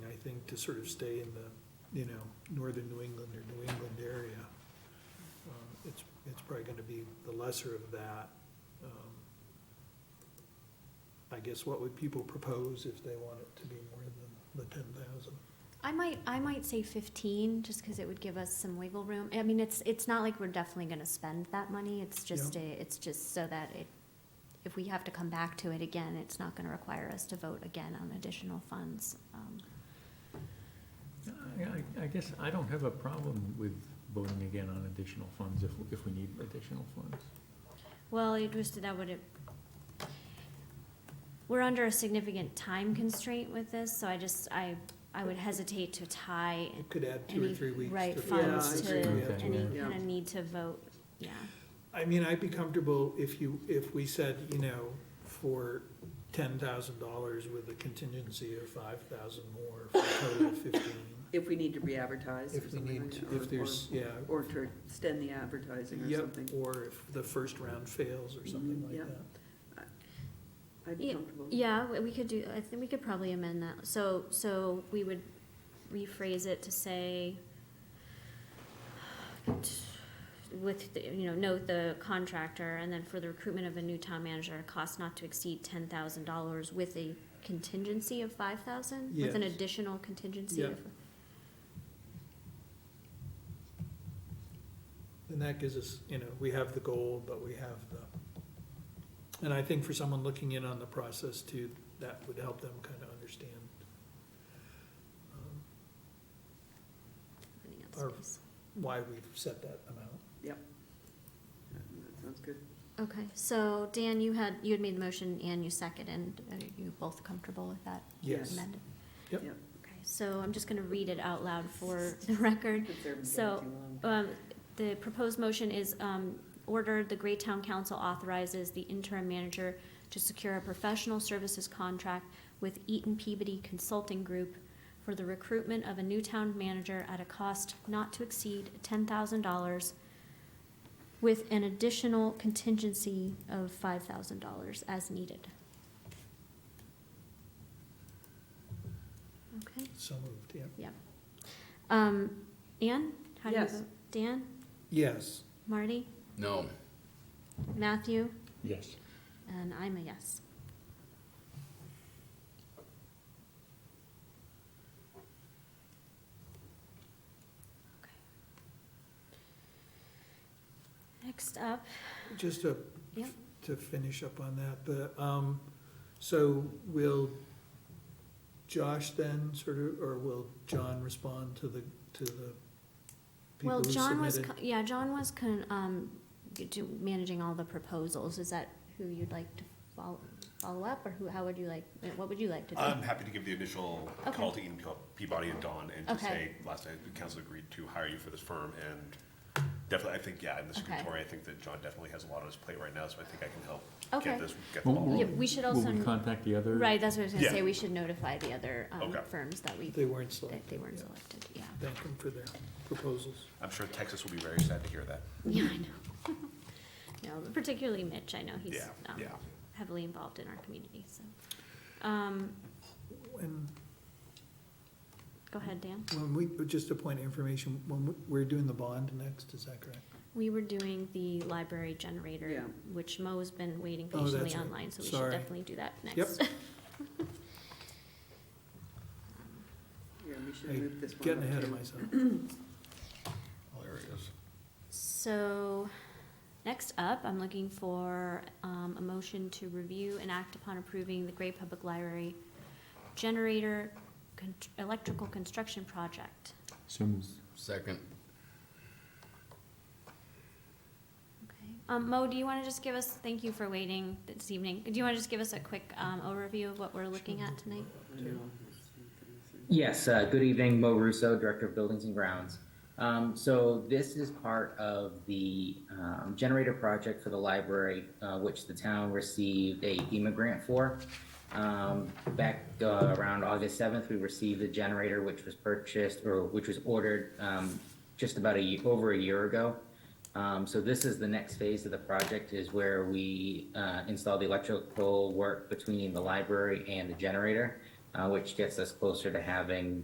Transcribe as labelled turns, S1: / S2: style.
S1: something to sort of stay in the, you know, northern New England or New England area. um, It's, it's probably gonna be the lesser of that. Um, I guess what would people propose if they want it to be more than the ten thousand?
S2: I might, I might say fifteen, just because it would give us some wiggle room. I mean, it's, it's not like we're definitely gonna spend that money, it's just a, it's just so that it, if we have to come back to it again, it's not gonna require us to vote again on additional funds. Um,
S3: I- I, I guess I don't have a problem with voting again on additional funds if, if we need additional funds.
S2: Well, it was, that would, we're under a significant time constraint with this, so I just, I, I would hesitate to tie
S1: It could add two or
S2: any,
S1: three weeks.
S2: right,
S1: to-
S2: funds
S4: Yeah,
S2: to
S4: I
S3: agree. Okay.
S2: any
S4: Yeah.
S2: kind of need to vote, yeah.
S1: I mean, I'd be comfortable if you, if we said, you know, for ten thousand dollars with a contingency of five thousand more, for a total of fifteen.
S4: If we need to re-advertise or
S1: If we
S4: something
S1: need,
S4: like that.
S1: to-
S4: or-
S1: if there's, yeah.
S4: Or or to extend the advertising or
S1: Yep,
S4: something.
S1: Or if the first round fails or something
S4: Mhm,
S1: like
S4: yep.
S1: that.
S4: I'd be
S2: Yeah,
S4: comfortable.
S2: Yeah, we- we could do, I think we could probably amend that, so, so we would rephrase it to say with, the- you know, note the contractor, and then for the recruitment of a new town manager, cost not to exceed ten thousand dollars with a contingency of five thousand? With an
S1: Yes.
S2: additional contingency
S1: Yeah.
S2: of,
S1: And that gives us, you know, we have the goal, but we have the, and I think for someone looking in on the process too, that would help them kind of understand. um,
S2: anything
S1: Or-
S2: else, please.
S1: Why we've set that amount.
S4: Yeah, That sounds good.
S2: Okay, so Dan, you had, you had made the motion and you seconded, and are you both comfortable with that
S1: Yes.
S2: amended?
S1: Yep.
S4: Yep.
S2: Okay, so I'm just gonna read it out loud for the record.
S4: If they're
S2: So,
S4: taking too long.
S2: Um, the proposed motion is, um, ordered, the Greytown Council authorizes the interim manager to secure a professional services contract with Eaton Peabody Consulting Group for the recruitment of a new town manager at a cost not to exceed ten thousand dollars with an additional contingency of five thousand dollars as needed. Okay,
S1: So moved, yeah.
S2: um, Anne, how do you
S4: Yes.
S2: vote? Dan,
S1: Yes.
S2: Marty?
S5: No.
S2: Matthew,
S3: Yes.
S2: and I'm a yes. Okay. Next up,
S1: Just to,
S2: Yep.
S1: to finish up on that, the, um, so will Josh then sort of, or will John respond to the, to the people
S2: well,
S1: who
S2: John was,
S1: submitted?
S2: co- yeah, John was con, um, g- do- managing all the proposals, is that who you'd like to follow, follow up, or who, how would you like, what would you like to do?
S6: I'm happy to give the initial
S2: Okay.
S6: call to Eaton Co- Peabody and Dawn and to
S2: Okay.
S6: say, last night, the council agreed to hire you for this firm and definitely, I think, yeah, in the
S2: Okay.
S6: secretary, I think that John definitely has a lot on his plate right now, so I think I can help
S2: Okay.
S6: get this, get the ball
S2: Yeah,
S6: rolling.
S2: we should
S3: Will
S2: also-
S3: we contact the other?
S2: Right, that's what I was gonna
S6: Yeah.
S2: say, we should notify the other, um,
S6: Okay.
S2: firms that we,
S1: They weren't selected.
S2: that they weren't
S1: yeah.
S2: selected, yeah.
S1: Thank them for their proposals.
S6: I'm sure Texas will be very sad to hear that.
S2: Yeah, I know. No, particularly Mitch, I know he's
S6: Yeah,
S2: um,
S6: yeah.
S2: heavily involved in our community, so. Um,
S1: When,
S2: go ahead, Dan.
S1: when we, just a point of information, when we- we're doing the bond next, is that correct?
S2: We were doing the library generator,
S4: Yeah.
S2: which Mo's been waiting
S1: Oh, that's
S2: patiently
S1: right.
S2: online, so we should
S1: Sorry.
S2: definitely do that next.
S4: Yeah, we should
S1: Hey,
S4: move this one.
S1: Getting
S4: up
S1: ahead of
S4: too.
S1: myself.
S6: All areas.
S2: So, next up, I'm looking for, um, a motion to review and act upon approving the Gray Public Library generator con- electrical construction project.
S3: So moved.
S5: Second.
S2: Okay. Um, Mo, do you want to just give us, thank you for waiting this evening. Do you want to just give us a quick um, overview of what we're looking at tonight?
S4: I know. Something-
S7: Yes, uh, good evening, Mo Russo, Director of Buildings and Grounds. Um, so this is part of the, um, generator project for the library, uh, which the town received a FEMA grant for. Um, back, uh, around August seventh, we received the generator, which was purchased, or which was ordered, um, just about a, ye- over a year ago. Um, so this is the next phase of the project is where we, uh, install the electrical work between the library and the generator, uh, which gets us closer to having